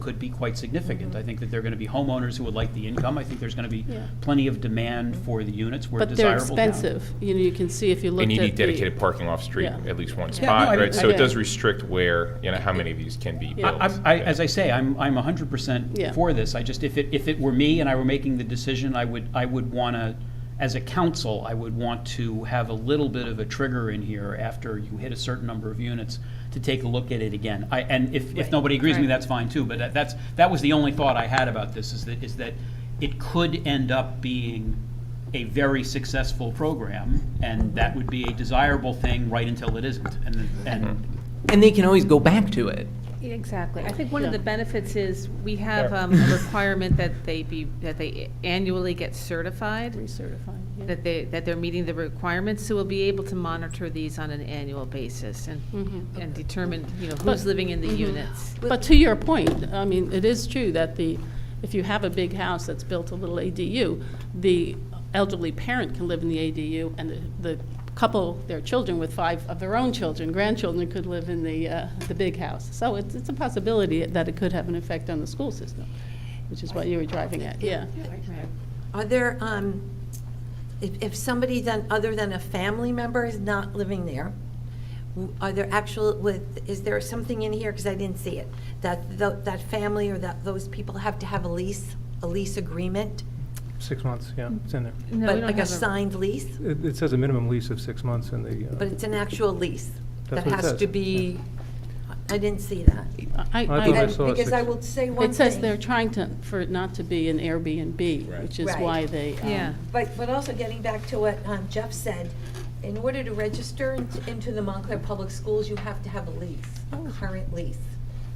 could be quite significant. I think that there are going to be homeowners who would like the income. I think there's going to be Mm-hmm. Yeah. plenty of demand for the units. We're a But they're desirable town. expensive, you know, you can see if you looked at And the. you need dedicated parking off-street, Yeah. at least one Yeah, no, I- spot, right? So I- it does restrict where, you know, how many of these can be Yeah. built. I, I- I, as I say, I'm, I'm hundred percent Yeah. for this. I just, if it, if it were me and I were making the decision, I would, I would want to, as a council, I would want to have a little bit of a trigger in here after you hit a certain number of units to take a look at it again. I, and if, if nobody agrees with me, Right. that's fine too, but that- that's, that was the only thought I had about this, is that, is that it could end up being a very successful program, and that would be a desirable thing right until it isn't. And, and And they can always go back to it. Exactly. I think one of Yeah. the benefits is we have Yeah. um, a requirement that they be, that they annually get certified, Recertifying, yeah. that they, that they're meeting the requirements, so we'll be able to monitor these on an annual basis and, Mhm. and determine, you know, But- who's living in the units. But to your point, I mean, it is true that the, if you have a big house that's built a little ADU, the elderly parent can live in the ADU, and the the couple, their children with five of their own children, grandchildren, could live in the, uh, the big house. So it's, it's a possibility that it could have an effect on the school system, which is what you were driving at, yeah. Are there, um, if, if somebody then, other than a family member is not living there, w- are there actual, with, is there something in here, because I didn't see it, that, tho- that family or that those people have to have a lease, a lease agreement? Six months, yeah, it's in there. No, we But don't like a have signed lease, It, it says a minimum lease of six months in the. uh, but it's an actual lease that That's what it has says, to be, I I didn't see that. I, I thought I- I saw a Because I six- will say one thing. It says they're trying to, for it not to be an Airbnb, which is Right. why they. um, Yeah. But, but also getting back to what um, Jeff said, in order to register in- into the Montclair Public Schools, you have to have a lease, a current lease.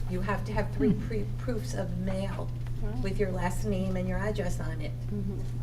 You have to have three pre- proofs of mail with your last name and your address on it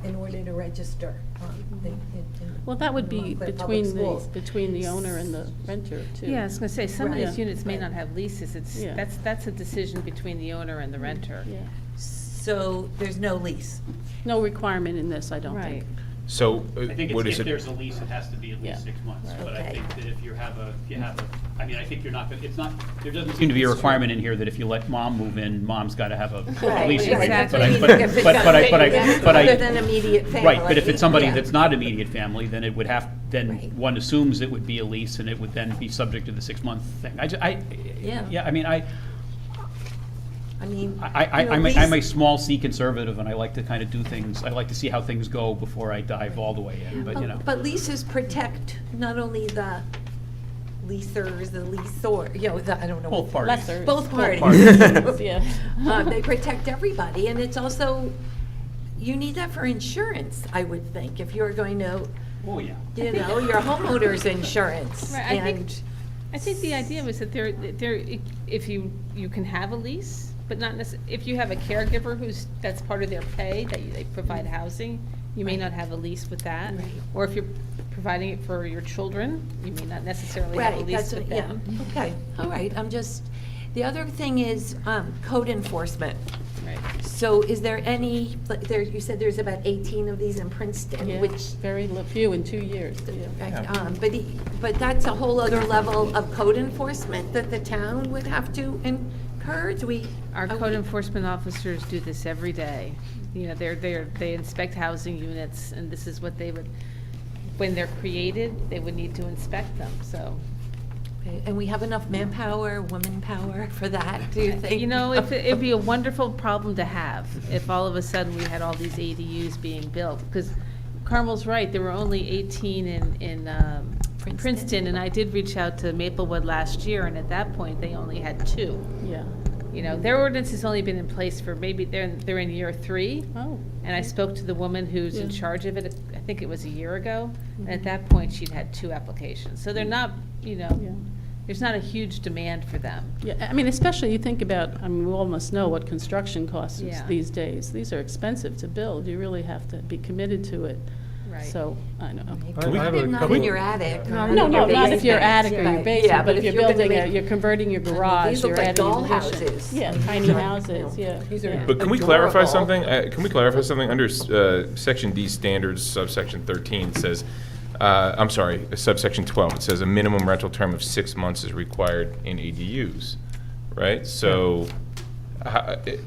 in order to register. um, the- in- in Well, that would the be Montclair Public between the, Schools. between the owner and the renter, too. Yeah, I was gonna say, some of Right. these units may Right. not have leases, it's, Yeah. that's, that's a decision between the owner and the renter. Yeah. So there's no lease. No requirement in this, I don't think. Right. So uh, I think what it's- is if there's it? a lease, it has to be at Yeah. least six months. But I Okay. think that if you have a, if you have a, I mean, I think you're not, gonna it's not, there doesn't seem to be a requirement in here that if you let mom move in, mom's got to have a Right, lease agreement. exactly. But I, but, If it's but but I, but I, something but Other than I, immediate family. right, but if it's somebody yeah. that's not immediate family, then it would have, then Right. one assumes it would be a lease and it would then be subject to the six-month thing. I, ju- I, Yeah. yeah, I mean, I, I mean. I, I, you know, I'm a- I'm a lease- small C conservative and I like to kind of do things, I like to see how things go before I dive all the way in, but you know. But leases protect not only the leasers, the leaseor, you know, the, I don't know. Both what- parties. Lesser. Both parties. parties. Yeah. Uh, They protect everybody, and it's also, you need that for insurance, I would think, if you're going to, Oh, yeah. you know, your homeowner's insurance. Right, I think- and- I think the idea was that there, there, if you, you can have a lease, but not necess, if you have a caregiver who's, that's part of their pay, that you- they provide housing, you may not have a lease with that. Right. Or if you're providing it for your children, you may not necessarily have a Right, lease that's, what- with yeah, them. okay, all right, I'm just, the other thing is um, code enforcement. Right. So is there any, like, there, you said there's about 18 of these in Princeton, Yeah, which very li- few in two years. yeah. Right, um, But, he- but that's a whole other level of code enforcement that the town would have to incur, do we? Our are code we- enforcement officers do this every day. You know, they're, they're, they inspect housing units, and this is what they would, when they're created, they would need to inspect them, so. Okay, And we have enough manpower, woman power for that, do you think? You know, if, it- it'd be a wonderful problem to have, if all of a sudden we had all these ADUs being built, because Carmel's right, there were only eighteen in, in, um, Princeton. Princeton, and I did reach out to Maplewood last year, and at that point, they only had two. Yeah. You know, their ordinance has only been in place for maybe, they're, they're in year three, Oh, and I spoke to the woman who's in Yeah. charge of it, I think it was a year ago, and at that point, she'd had two applications, so they're not, you yeah. know, there's not a huge demand for them. Yeah, I mean, especially you think about, I mean, we all must know what construction costs is Yeah. these days. These are expensive to build. You really have to be committed to it. So, I know. I- I have a Not couple in of- your attic. or No, no, your not if you're basement. attic or your Right. basement, but if you're gonna building, a- make- you're converting your mean, garage, these you're look like adding an dollhouses. addition. Yeah, tiny Yeah. houses, Yeah. yeah. These are- yeah. But can we clarify Adorable. something? Uh, Can we clarify something? Under uh, section D standards, subsection 13 says, uh, I'm sorry, subsection 12, it says a minimum rental term of six months is required in ADUs, right? So uh, it-